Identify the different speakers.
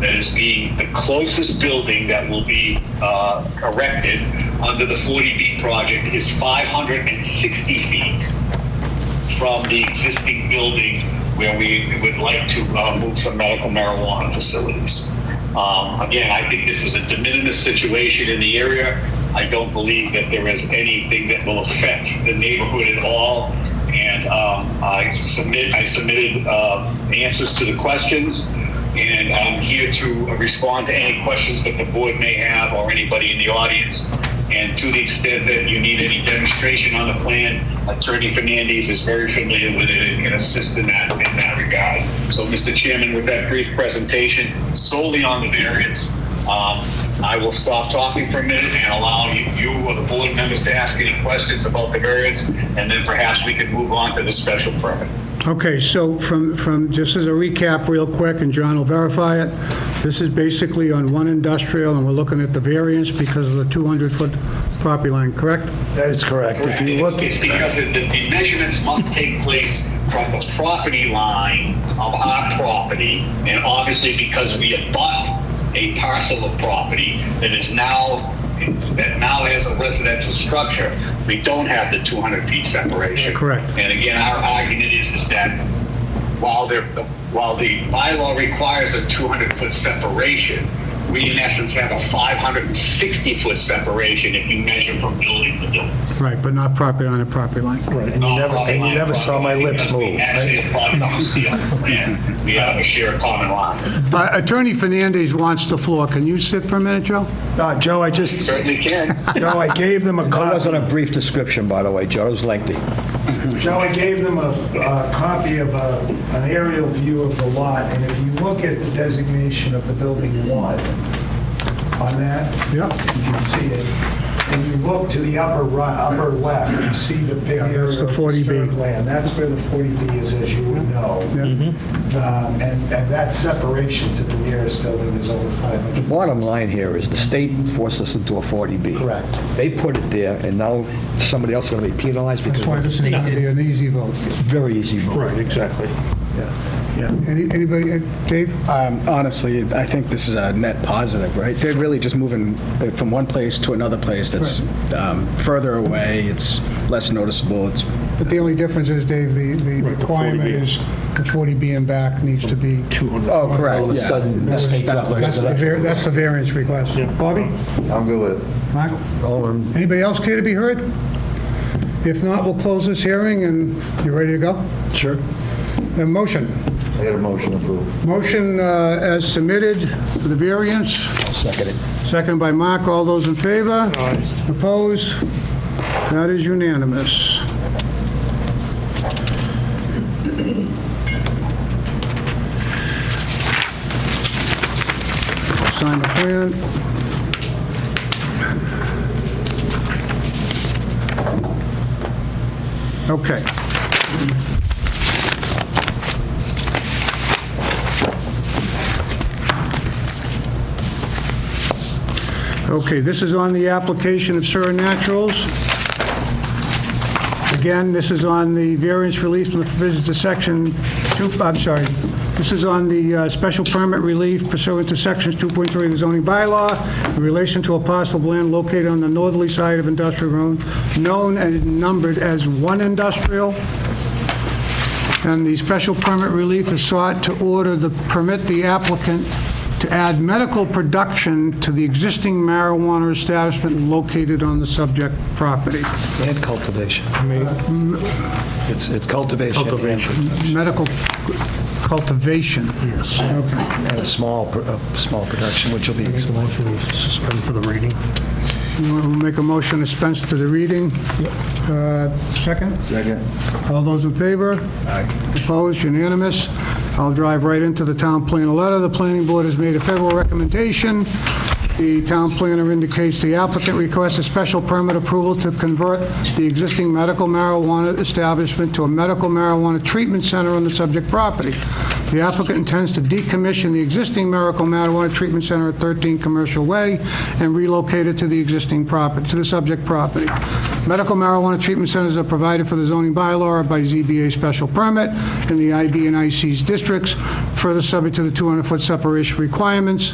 Speaker 1: that is being the closest building that will be uh, erected under the 40B project is 560 feet from the existing building where we would like to uh, move some medical marijuana facilities. Um, Again, I think this is a de minimis situation in the area. I don't believe that there is anything that will affect the neighborhood at all. And um, I submit, I submitted uh, answers to the questions, and I'm here to respond to any questions that the board may have or anybody in the audience. And to the extent that you need any demonstration on the plan, Attorney Fernandez is very familiar with it and can assist in that, in that regard. So, Mr. Chairman, with that brief presentation solely on the variance, um, I will stop talking for a minute and allow you- you or the board members to ask any questions about the variance, and then perhaps we can move on to the special permit.
Speaker 2: Okay, so from, from, just as a recap real quick, and John will verify it, this is basically on one industrial, and we're looking at the variance because of the 200-foot property line, correct?
Speaker 3: That is correct. If you look,
Speaker 1: It's because the, the measurements must take place from the property line of our property, and obviously because we have bought a parcel of property that is now, that now has a residential structure, we don't have the 200 feet separation.
Speaker 2: Correct.
Speaker 1: And again, our argument is, is that while there, while the bylaw requires a 200-foot separation, we in essence have a 560-foot separation if you measure from building to building.
Speaker 2: Right, but not property line to property line.
Speaker 3: right, and you never, and you never saw my lips move.
Speaker 1: Actually,
Speaker 3: right?
Speaker 1: it's probably not concealed. Yeah, We have a shared common line.
Speaker 2: Uh, Attorney Fernandez wants the floor. Can you sit for a minute, Joe?
Speaker 3: No, Uh, Joe, I just,
Speaker 1: Certainly can.
Speaker 3: Joe, I gave them a
Speaker 4: That
Speaker 3: copy.
Speaker 4: wasn't a brief description, by the way, Joe. It was lengthy.
Speaker 3: Joe, I gave them a a copy of a- an aerial view of the lot, and if you look at the designation of the building one on that,
Speaker 2: Yeah.
Speaker 3: you can see it, and you look to the upper right, upper left, you see the big area
Speaker 2: that's the
Speaker 3: of
Speaker 2: 40B.
Speaker 3: disturbed land. That's where the 40B is, as you would know. Um, And and that separation to the nearest building is over 500.
Speaker 4: Bottom line here is the state forced us into a 40B.
Speaker 3: Correct.
Speaker 4: They put it there, and now somebody else is going to be penalized because.
Speaker 2: That's why this is going to be an easy vote.
Speaker 4: Very easy vote.
Speaker 5: Right, exactly.
Speaker 3: Yeah, yeah.
Speaker 2: Any- Anybody, uh, Dave?
Speaker 6: Um, Honestly, I think this is a net positive, right? They're really just moving from one place to another place that's um, further away, it's less noticeable, it's,
Speaker 2: But the only difference is, Dave, the the
Speaker 5: Right, the
Speaker 2: requirement
Speaker 5: 40B.
Speaker 2: is the 40B and back needs to be...
Speaker 5: 200.
Speaker 4: Oh, correct.
Speaker 6: All of a sudden,
Speaker 4: This takes up
Speaker 2: That's the var- that's the variance request. Bobby?
Speaker 4: I'm good with it.
Speaker 2: Mark? Anybody else care to be heard? If not, we'll close this hearing, and you ready to go?
Speaker 6: Sure.
Speaker 2: A motion.
Speaker 7: I got a motion approved.
Speaker 2: Motion uh, as submitted for the variance. Seconded. Seconded by Mark. All those in favor? Aye. Opposed? That is unanimous. Sign the plan. Okay. Okay, this is on the application of Sura Naturals. Again, this is on the variance relief from the provisions of section two, I'm sorry, this is on the uh, special permit relief pursuant to sections 2.3 of the zoning bylaw in relation to a parcel of land located on the northerly side of industrial road, known and numbered as one industrial. And the special permit relief is sought to order the, permit the applicant to add medical production to the existing marijuana establishment located on the subject property.
Speaker 3: And cultivation. It's it's cultivation and production.
Speaker 2: Medical cultivation. Yes. Okay.
Speaker 3: and a small, pr- a small production, which will be explained.
Speaker 5: Motion to suspend for the reading.
Speaker 2: You want to make a motion to dispense to the reading? Uh, Second?
Speaker 7: Second.
Speaker 2: All those in favor? Aye. Opposed, unanimous. I'll drive right into the town planner letter. The planning board has made a federal recommendation. The town planner indicates the applicant requests a special permit approval to convert the existing medical marijuana establishment to a medical marijuana treatment center on the subject property. The applicant intends to decommission the existing Miracle Marijuana Treatment Center at 13 Commercial Way and relocate it to the existing property, to the subject property. Medical marijuana treatment centers are provided for the zoning bylaw or by ZBA special permit in the IB and IC's districts, further subject to the 200-foot separation requirements.